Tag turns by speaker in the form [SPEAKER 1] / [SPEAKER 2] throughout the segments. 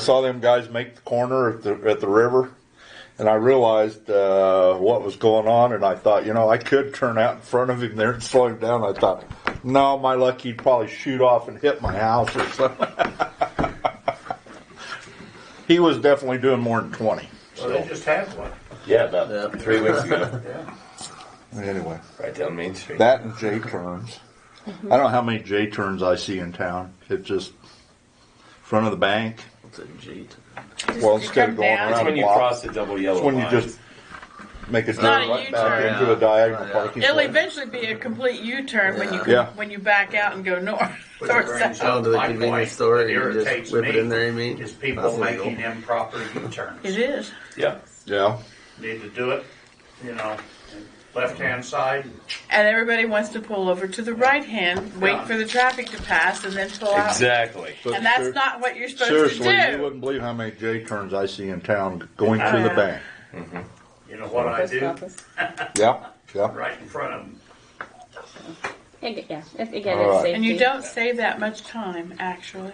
[SPEAKER 1] saw them guys make the corner at the at the river, and I realized uh, what was going on, and I thought, you know, I could turn out in front of him there and slow him down. I thought, no, my luck, he'd probably shoot off and hit my house or something. he was definitely doing more than twenty.
[SPEAKER 2] Well, they just had one.
[SPEAKER 3] Yeah, about
[SPEAKER 4] Yeah.
[SPEAKER 3] three weeks ago,
[SPEAKER 2] Yeah.
[SPEAKER 1] Anyway,
[SPEAKER 3] right down Main Street.
[SPEAKER 1] that and J turns. I don't know how many J turns I see in town. It's just front of the bank.
[SPEAKER 4] It's a jeet.
[SPEAKER 1] Well, instead of going
[SPEAKER 3] That's
[SPEAKER 1] around
[SPEAKER 3] when you
[SPEAKER 1] block.
[SPEAKER 3] cross the double yellow
[SPEAKER 1] It's when you
[SPEAKER 3] line.
[SPEAKER 1] just make a
[SPEAKER 5] not
[SPEAKER 1] turn
[SPEAKER 5] a
[SPEAKER 1] right back
[SPEAKER 5] U-turn.
[SPEAKER 1] into a diagonal
[SPEAKER 4] Yeah.
[SPEAKER 1] parking.
[SPEAKER 5] It'll
[SPEAKER 1] lot.
[SPEAKER 5] eventually be a complete U-turn when you
[SPEAKER 1] Yeah.
[SPEAKER 5] when you back out and go north
[SPEAKER 2] Which
[SPEAKER 5] or
[SPEAKER 2] brings
[SPEAKER 5] south.
[SPEAKER 2] up
[SPEAKER 4] Oh, to the
[SPEAKER 2] my
[SPEAKER 4] convenience
[SPEAKER 2] point
[SPEAKER 4] store,
[SPEAKER 2] that
[SPEAKER 4] you just
[SPEAKER 2] irritates
[SPEAKER 4] whip it
[SPEAKER 2] me
[SPEAKER 4] in there, you mean?
[SPEAKER 2] Is people
[SPEAKER 4] That's
[SPEAKER 2] making
[SPEAKER 4] legal.
[SPEAKER 2] improper U-turns.
[SPEAKER 5] It is.
[SPEAKER 3] yeah.
[SPEAKER 1] Yeah.
[SPEAKER 2] Need to do it, you know, left-hand side,
[SPEAKER 5] And everybody wants to pull over to the right hand, wait
[SPEAKER 2] Yeah.
[SPEAKER 5] for the traffic to pass, and then pull out.
[SPEAKER 3] Exactly.
[SPEAKER 1] So
[SPEAKER 5] And that's
[SPEAKER 1] ser-
[SPEAKER 5] not what you're supposed
[SPEAKER 1] seriously.
[SPEAKER 5] to
[SPEAKER 1] You
[SPEAKER 5] do.
[SPEAKER 1] wouldn't believe how many J turns I see in town going to
[SPEAKER 5] Oh,
[SPEAKER 1] the
[SPEAKER 5] yeah.
[SPEAKER 1] bank.
[SPEAKER 2] you know what I do?
[SPEAKER 1] Yeah. Yeah.
[SPEAKER 2] Right in front of them.
[SPEAKER 6] Ag- Yeah, if- again,
[SPEAKER 1] All
[SPEAKER 6] it's
[SPEAKER 1] right.
[SPEAKER 6] safety.
[SPEAKER 5] And you don't save that much time, actually.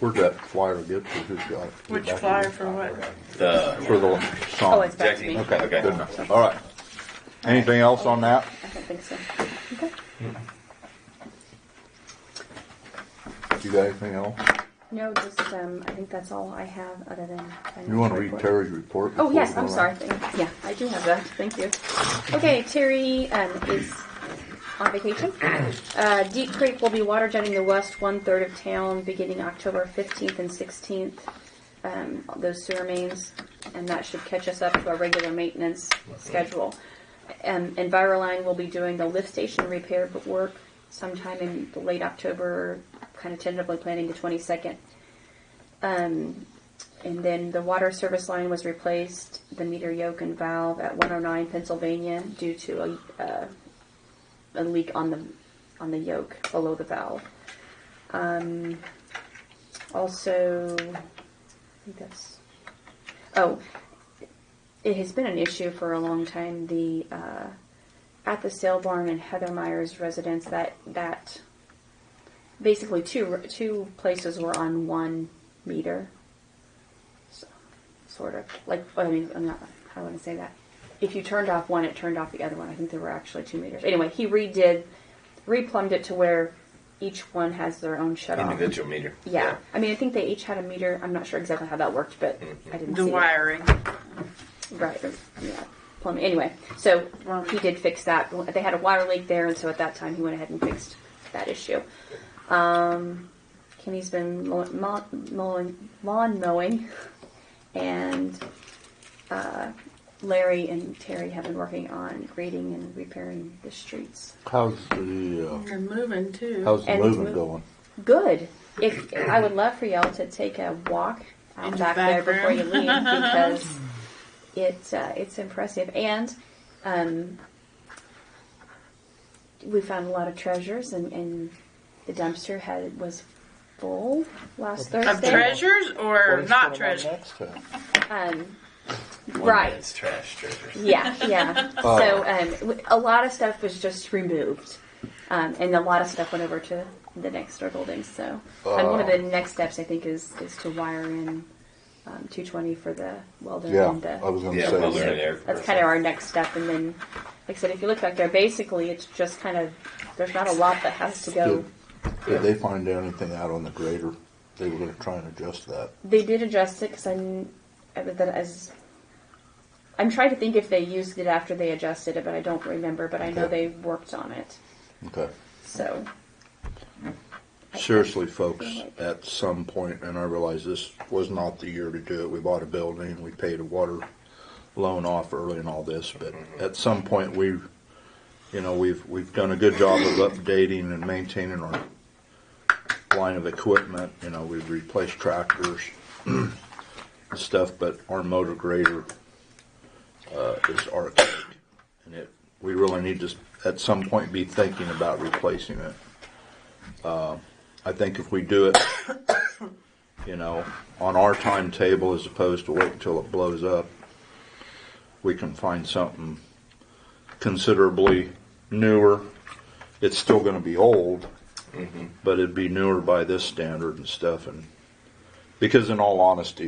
[SPEAKER 1] Where'd that flyer get to? Who's got it?
[SPEAKER 5] Which
[SPEAKER 1] Back
[SPEAKER 5] flyer for what?
[SPEAKER 3] The
[SPEAKER 1] For the song.
[SPEAKER 6] Oh, it's back to
[SPEAKER 3] Jackie.
[SPEAKER 6] me.
[SPEAKER 1] okay.
[SPEAKER 3] Okay.
[SPEAKER 1] Good enough. All right. Anything else on that?
[SPEAKER 6] I don't think so.
[SPEAKER 1] You got anything else?
[SPEAKER 6] No, just um, I think that's all I have other than. financial
[SPEAKER 1] You want to read
[SPEAKER 6] report.
[SPEAKER 1] Terry's report?
[SPEAKER 6] Oh
[SPEAKER 1] before
[SPEAKER 6] yes,
[SPEAKER 1] we go
[SPEAKER 6] I'm
[SPEAKER 1] on?
[SPEAKER 6] sorry. Thank- Yeah, I do have that. Thank you. Okay, Terry um, is on vacation. Uh, Deep Creek will be water jetting the west one third of town beginning October 15th and 16th. Um, those sewer mains, and that should catch us up to our regular maintenance schedule. Um, Enviroline will be doing the lift station repair work sometime in late October, kind of tentatively planning the 22nd. And then the water service line was replaced, the meter yoke and valve at 109 Pennsylvania due to a, uh, a leak on the, on the yoke below the valve. Um, also, I think that's, oh, it has been an issue for a long time, the, uh, at the sale barn in Heather Meyer's residence, that, that, basically two, two places were on one meter sort of like I mean I'm not how do I want to say that. If you turned off one, it turned off the other one. I think there were actually two meters. Anyway, he redid, replumbed it to where each one has their own shut off. Yeah.
[SPEAKER 3] individual meter.
[SPEAKER 6] I mean I think they each had a meter. I'm not sure exactly how that worked, but I didn't
[SPEAKER 5] The
[SPEAKER 6] see it.
[SPEAKER 5] wiring.
[SPEAKER 6] Right. or- Yeah. Plumbing. Anyway, so he did fix that. They had a water leak there, and so at that time he went ahead and fixed that issue. Um, Kenny's been mow- mow- mowing, lawn mowing, and uh, Larry and Terry have been working on grading and repairing the streets.
[SPEAKER 1] How's the uh,
[SPEAKER 5] And moving too.
[SPEAKER 1] how's the
[SPEAKER 6] And it's
[SPEAKER 1] moving
[SPEAKER 6] moving.
[SPEAKER 1] going?
[SPEAKER 6] Good. If I would love for y'all to take a walk
[SPEAKER 5] In
[SPEAKER 6] out
[SPEAKER 5] the
[SPEAKER 6] back,
[SPEAKER 5] back
[SPEAKER 6] there before you
[SPEAKER 5] room.
[SPEAKER 6] leave because it's uh, it's impressive and um, we found a lot of treasures and, and the dumpster had was full last
[SPEAKER 5] of
[SPEAKER 6] Thursday.
[SPEAKER 5] treasures or not treasures?
[SPEAKER 1] Next time.
[SPEAKER 6] Um,
[SPEAKER 3] One
[SPEAKER 6] right.
[SPEAKER 3] man's trash treasure.
[SPEAKER 6] Yeah, yeah.
[SPEAKER 1] Oh.
[SPEAKER 6] So um, w- a lot of stuff was just removed, um, and a lot of stuff went over to the next door building. So and one of
[SPEAKER 1] Oh.
[SPEAKER 6] the next steps, I think, is is to wire in um, 220 for the welder
[SPEAKER 1] Yeah,
[SPEAKER 6] and
[SPEAKER 5] uh,
[SPEAKER 6] the.
[SPEAKER 1] I was going to
[SPEAKER 3] Yeah,
[SPEAKER 1] say.
[SPEAKER 3] well, they're
[SPEAKER 1] that.
[SPEAKER 3] in there.
[SPEAKER 6] That's kind of our next step, and then, like I said, if you look back there, basically it's just kind of there's not a lot that has to go.
[SPEAKER 1] Did, did they find anything out on the grader? They were going to try and adjust that.
[SPEAKER 6] They did adjust it because I'm I- that as I'm trying to think if they used it after they adjusted it, but I don't remember. But I know
[SPEAKER 1] Okay.
[SPEAKER 6] they worked on it.
[SPEAKER 1] Okay.
[SPEAKER 6] So
[SPEAKER 1] Seriously, folks, at some point, and I realize this was not the year to do it, we bought a building, we paid a water loan off early and all this, but at some point, we, you know, we've, we've done a good job of updating and maintaining our line of equipment, you know, we've replaced tractors and stuff, but our motor grader, uh, is archaic. And it, we really need to, s- at some point, be thinking about replacing it. I think if we do it, you know, on our timetable as opposed to wait until it blows up, we can find something considerably newer. It's still going to be old, but it'd be newer by this standard and stuff, and Because in all honesty,